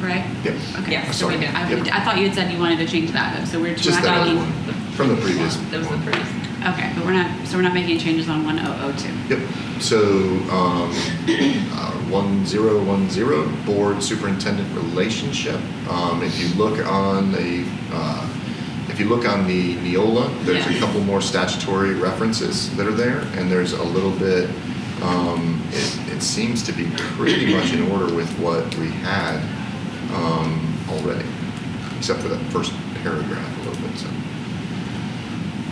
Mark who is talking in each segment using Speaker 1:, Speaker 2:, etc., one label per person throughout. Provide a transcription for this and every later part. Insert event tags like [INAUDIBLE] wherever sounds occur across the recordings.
Speaker 1: right?
Speaker 2: Yep.
Speaker 1: Okay,
Speaker 3: Yes.
Speaker 1: so we did. I
Speaker 2: Yep.
Speaker 1: I thought you had said you wanted to change that, so we're
Speaker 2: Just
Speaker 1: not
Speaker 2: that other
Speaker 1: making.
Speaker 2: one, from the previous
Speaker 3: That was the
Speaker 2: one.
Speaker 3: first.
Speaker 1: Okay, but we're not, so we're not making changes on 1002.
Speaker 2: Yep. So, um, uh, 1010, board superintendent relationship. Um, if you look on the, uh, if you look on the Neola, there's a
Speaker 1: Yeah.
Speaker 2: couple more statutory references that are there, and there's a little bit, um, it, it seems to be pretty much in order with what we had, um, already, except for that first paragraph a little bit, so.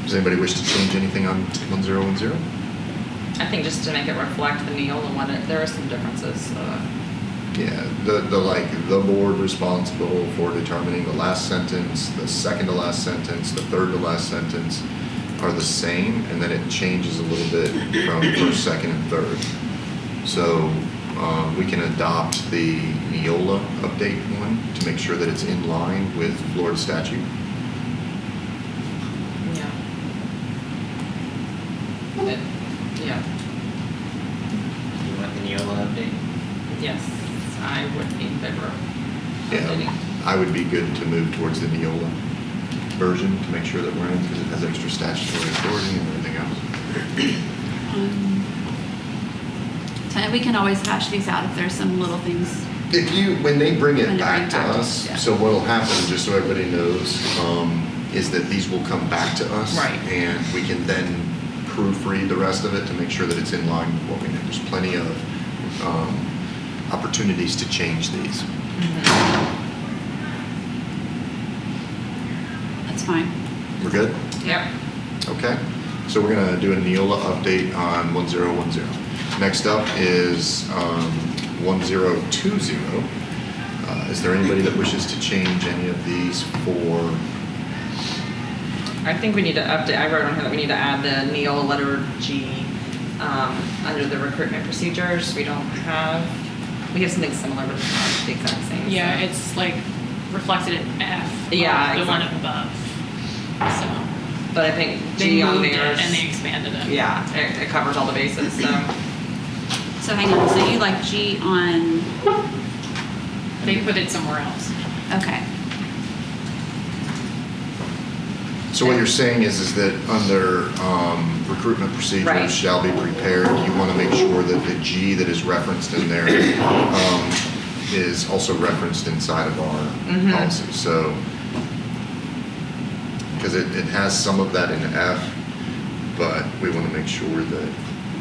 Speaker 2: Does anybody wish to change anything on 1010?
Speaker 3: I think just to make it reflect the Neola one, it- there are some differences. uh,
Speaker 2: Yeah, the, the like, the board responsible for determining the last sentence, the second to last sentence, the third to last sentence are the same, and then it changes a little bit from first, second, and third. So, um, we can adopt the Neola update one to make sure that it's in line with Florida statute.
Speaker 3: Yeah. It- Yeah,
Speaker 4: You want the Neola update?
Speaker 3: yes, I would be in favor of
Speaker 2: Yeah,
Speaker 3: updating.
Speaker 2: I would be good to move towards the Neola version to make sure that we're in, because it has extra statutory authority and everything else.
Speaker 1: Um, so We can always hash these out if there's some little things.
Speaker 2: If you, when they bring
Speaker 1: When
Speaker 2: it
Speaker 1: they bring
Speaker 2: back
Speaker 1: it
Speaker 2: to
Speaker 1: back to
Speaker 2: us,
Speaker 1: us, yeah.
Speaker 2: so what'll happen, just so everybody knows, um, is that these will come back to us.
Speaker 3: Right.
Speaker 2: And we can then proofread the rest of it to make sure that it's in line with what we know. There's plenty of, um, opportunities to change these.
Speaker 1: That's fine.
Speaker 2: We're good?
Speaker 3: Yep.
Speaker 2: Okay. So we're gonna do a Neola update on one zero one zero. Next up is, um, one zero two zero. Uh, is there anybody that wishes to change any of these for
Speaker 3: I think we need to update, I wrote on here that we need to add the Neola letter G um, under the recruitment procedures. We don't have, we have something similar, but it's not the exact same. so.
Speaker 5: Yeah, it's like reflected in F.
Speaker 3: Yeah,
Speaker 5: The one
Speaker 3: exactly.
Speaker 5: above. So
Speaker 3: But I think
Speaker 5: they
Speaker 3: G on
Speaker 5: moved it
Speaker 3: there
Speaker 5: and they
Speaker 3: is,
Speaker 5: expanded it.
Speaker 3: yeah, it it covers all the bases,
Speaker 5: [COUGHS]
Speaker 3: so.
Speaker 1: So hang on, so you like G on,
Speaker 5: They put it somewhere else.
Speaker 2: [CLEARS THROAT]
Speaker 1: okay.
Speaker 2: So what you're saying is, is that under um, recruitment
Speaker 3: Right.
Speaker 2: procedures shall be prepared, you want to make sure that the G that is referenced in there um, is also referenced inside of
Speaker 3: Mhm.
Speaker 2: our policy, so. Because it, it has some of that in F, but we want to make sure that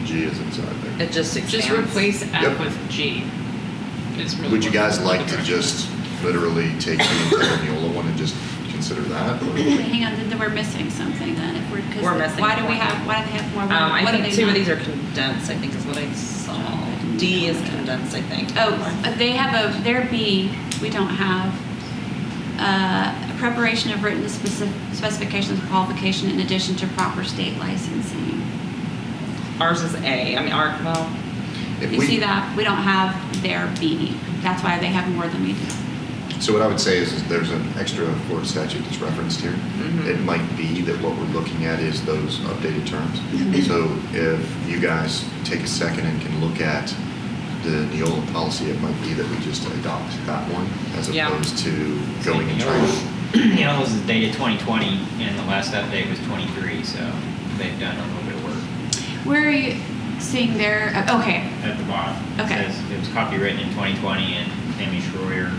Speaker 2: G is inside there.
Speaker 3: It just expands.
Speaker 5: Just replace
Speaker 2: Yep.
Speaker 5: F with G. Is really
Speaker 2: Would you
Speaker 5: what-
Speaker 2: guys like to just literally take the entire Neola one and just consider that? or-
Speaker 1: Hang on, then we're missing something then, if we're, because.
Speaker 3: We're missing
Speaker 1: Why do we
Speaker 3: one.
Speaker 1: have, why do they have more?
Speaker 3: Um,
Speaker 1: What
Speaker 3: I
Speaker 1: do
Speaker 3: think
Speaker 1: they
Speaker 3: two of
Speaker 1: not-
Speaker 3: these are condensed, I think is what I saw. D is condensed, I think.
Speaker 1: Oh, but they have a, their B, we don't have, uh, preparation of written specif specifications of qualification in addition to proper state licensing.
Speaker 3: Ours is A, I mean, our, well,
Speaker 2: If
Speaker 1: You
Speaker 2: we-
Speaker 1: see that? We don't have their B. That's why they have more than we do.
Speaker 2: So what I would say is, is there's an extra Florida statute that's referenced here.
Speaker 1: Mm-hmm.
Speaker 3: Mhm.
Speaker 2: It might be that what we're looking at is those updated terms.
Speaker 1: Mm-hmm.
Speaker 2: So if you guys take a second and can look at the Neola policy, it might be that we just adopt that one as
Speaker 3: Yeah.
Speaker 2: opposed to going and trying.
Speaker 4: [CLEARS THROAT] Neola's is dated 2020, and the last update was 23, so they've done a little bit of work
Speaker 1: Where are you seeing their, uh, okay,
Speaker 4: at the bottom. It
Speaker 1: Okay.
Speaker 4: says it was copywritten in 2020, and Amy Schroyer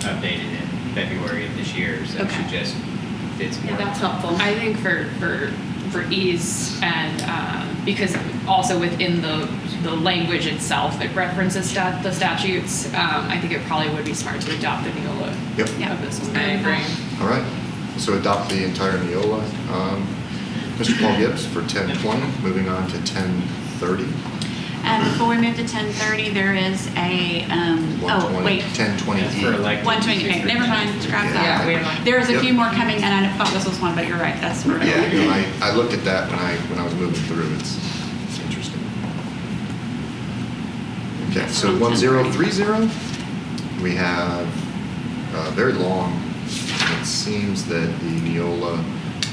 Speaker 4: updated in February of this year, so
Speaker 1: Okay.
Speaker 4: she just did some
Speaker 5: Yeah,
Speaker 4: work.
Speaker 5: that's helpful. I think for for for ease and um, because also within the the language itself, it references stat, the statutes. Um, I think it probably would be smart to adopt the Neola
Speaker 2: Yep.
Speaker 1: Yeah.
Speaker 5: of this one.
Speaker 3: I agree.
Speaker 2: All right. So adopt the entire Neola. Um, Mr. Paul Gibbs for 1020, moving on to 1030.
Speaker 1: and um, before we move to ten thirty, there is a, um, oh,
Speaker 2: 120,
Speaker 1: wait.
Speaker 2: 1020E.
Speaker 4: That's for elected
Speaker 1: One twenty, okay, never mind, scrap
Speaker 3: Yeah, we
Speaker 1: that.
Speaker 3: have one.
Speaker 1: There's a
Speaker 2: Yep.
Speaker 1: few more coming, and I thought this was one, but you're right, that's. where-
Speaker 2: Yeah, no, I, I looked at that when I, when I was moving through, it's, it's interesting. Okay, so one zero three zero, we have, uh, very long, it seems that the Neola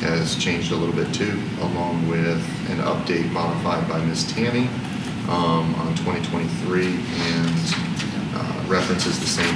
Speaker 2: has changed a little bit too, along with an update modified by Ms. Tammy, um, on twenty twenty-three, and, uh, references the same